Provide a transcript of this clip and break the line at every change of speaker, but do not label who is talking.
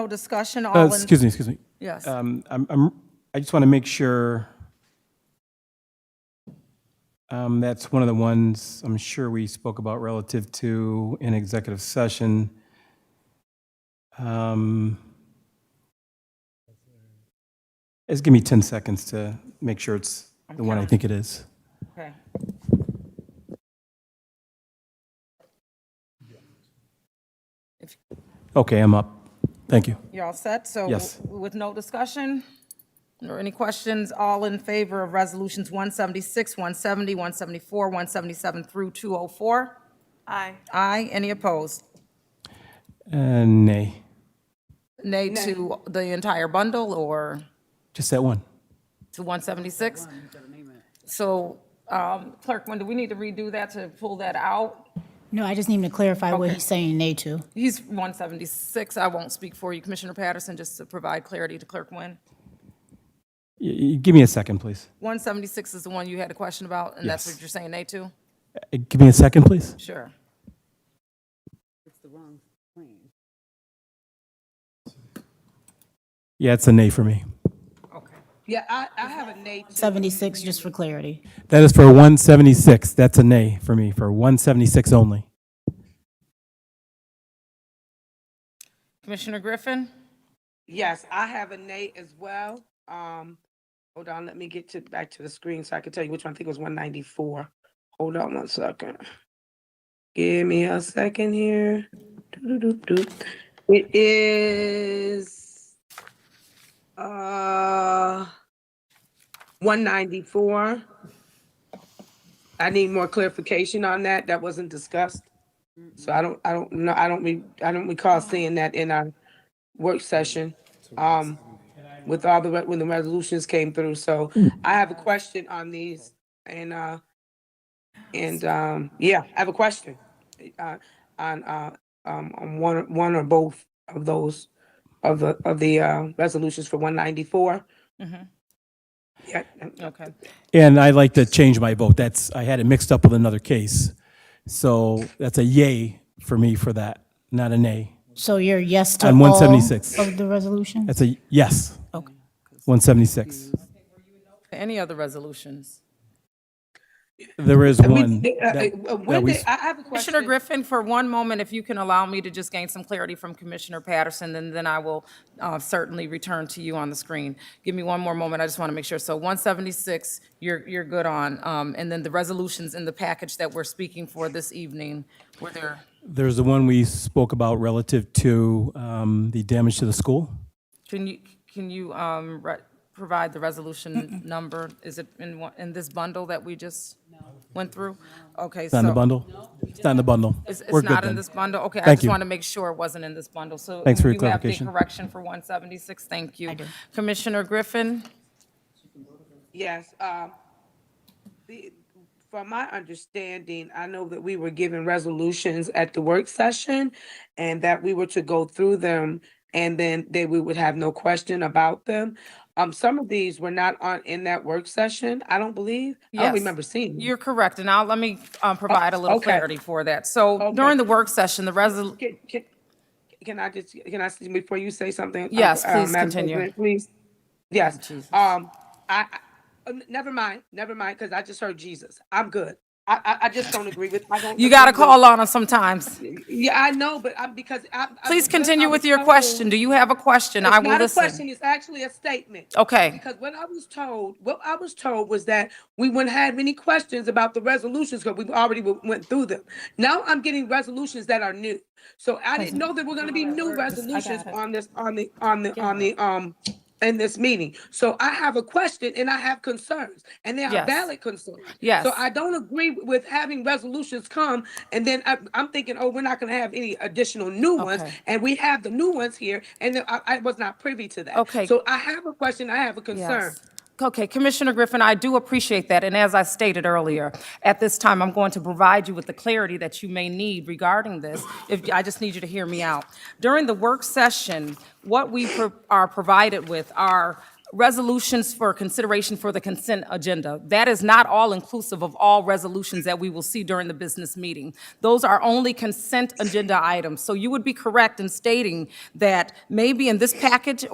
No discussion,
Uh,
all in,
Excuse me, excuse me.
yes.
Um, I'm, I'm, I just want to make sure. Um, that's one of the ones I'm sure we spoke about relative to an executive session. Um, Just give me 10 seconds to make sure it's the one I think it is.
Okay.
Okay, I'm up. Thank you.
You're all set?
Yes.
So with no discussion or any questions, all in favor of Resolutions 176, 170, 174, 177 through 204?
Aye.
Aye. Any opposed?
And nay,
Nay to the entire bundle or
just that one.
to 176? So um, Clerk, when do we need to redo that to pull that out?
No, I just need him to clarify what he's saying nay to.
He's 176. I won't speak for you, Commissioner Patterson, just to provide clarity to Clerk Nguyen.
Y- y- Give me a second, please.
176 is the one you had a question about, and that's
Yes.
what you're saying nay to?
Uh, Give me a second, please.
Sure.
Yeah, it's a nay for me.
Okay.
Yeah, I, I have a nay too.
76, just for clarity.
That is for 176. That's a nay for me, for 176 only.
Commissioner Griffin?
Yes, I have a nay as well. Um, hold on, let me get to, back to the screen so I can tell you which one. I think it was one ninety-four. Hold on one second. Give me a second here. Doo-doo-doo-doo. It is, uh, one ninety-four. I need more clarification on that. That wasn't discussed. So I don't, I don't know, I don't, re- I don't recall seeing that in our work session, um, with all the, re- when the resolutions came through, so I have a question on these, and, uh, and, um, yeah, I have a question, uh, on, uh, um, on one, one or both of those, of the, of the, uh, resolutions for one ninety-four. Yeah, uh,
Okay.
And I'd like to change my vote. That's, I had it mixed up with another case. So that's a yay for me for that, not a nay.
So you're yes to all
On 176.
of the resolution?
That's a yes.
Okay.
176.
Any other resolutions?
There is
We-
one.
uh, uh,
that-
uh,
that
When
we-
did, I I have a question.
Commissioner Griffin, for one moment, if you can allow me to just gain some clarity from Commissioner Patterson, then, then I will uh, certainly return to you on the screen. Give me one more moment, I just want to make sure. So 176, you're, you're good on. Um, And then the resolutions in the package that we're speaking for this evening, were there,
There's the one we spoke about relative to um, the damage to the school.
can you, can you um, re- provide the resolution number? Is it in, one- in this bundle that we just went through? Okay,
It's
so.
not in the bundle. It's not in the bundle.
It's,
We're
it's
good
not in
then.
this bundle? Okay, I
Thank
just
you.
want to make sure it wasn't in this bundle, so.
Thanks for your
You
clarification.
have the correction for 176, thank you. Commissioner Griffin,
Yes, um, the, from my understanding, I know that we were given resolutions at the work session and that we were to go through them and then they, we would have no question about them. Um, some of these were not on, in that work session, I don't believe. I
Yes.
don't remember seeing. them.
you're correct, and now let me um, provide a little
okay.
clarity for that. So during the work session, the resol,
Can, can, can I just, can I, s- before you say something? uh,
Yes,
uh,
please
Madam
continue. Oh,
President, Please, yes, um, I, I- uh, never mind, never mind, because I just heard Jesus, I'm good. I, I, I just don't agree with, I don't.
you got to
agree with-
call on us sometimes.
Yeah, I know, but I'm, because I. I
Please
was just- I
continue
was
with your
told-
question, do you have a question? I
It's
will
not a question,
listen.
it's actually a statement.
Okay,
Because what I was told, what I was told was that we wouldn't have any questions about the resolutions because we already w- went through them. Now I'm getting resolutions that are new. So I didn't know there were gonna be new resolutions on this, on the, on the, on the, um, in this meeting. So I have a question and I have concerns and they are
Yes.
valid concerns.
Yes.
So I don't agree with having resolutions come and then I, I'm thinking, oh, we're not gonna have any additional new ones.
Okay.
And we have the new ones here and then I, I was not privy to that.
Okay.
So I have a question, I have a concern.
Yes. Okay, Commissioner Griffin, I do appreciate that, and as I stated earlier, at this time, I'm going to provide you with the clarity that you may need regarding this. If, I just need you to hear me out. During the work session, what we pro- are provided with are resolutions for consideration for the consent agenda. That is not all-inclusive of all resolutions that we will see during the business meeting. Those are only consent agenda items. So you would be correct in stating that maybe in this package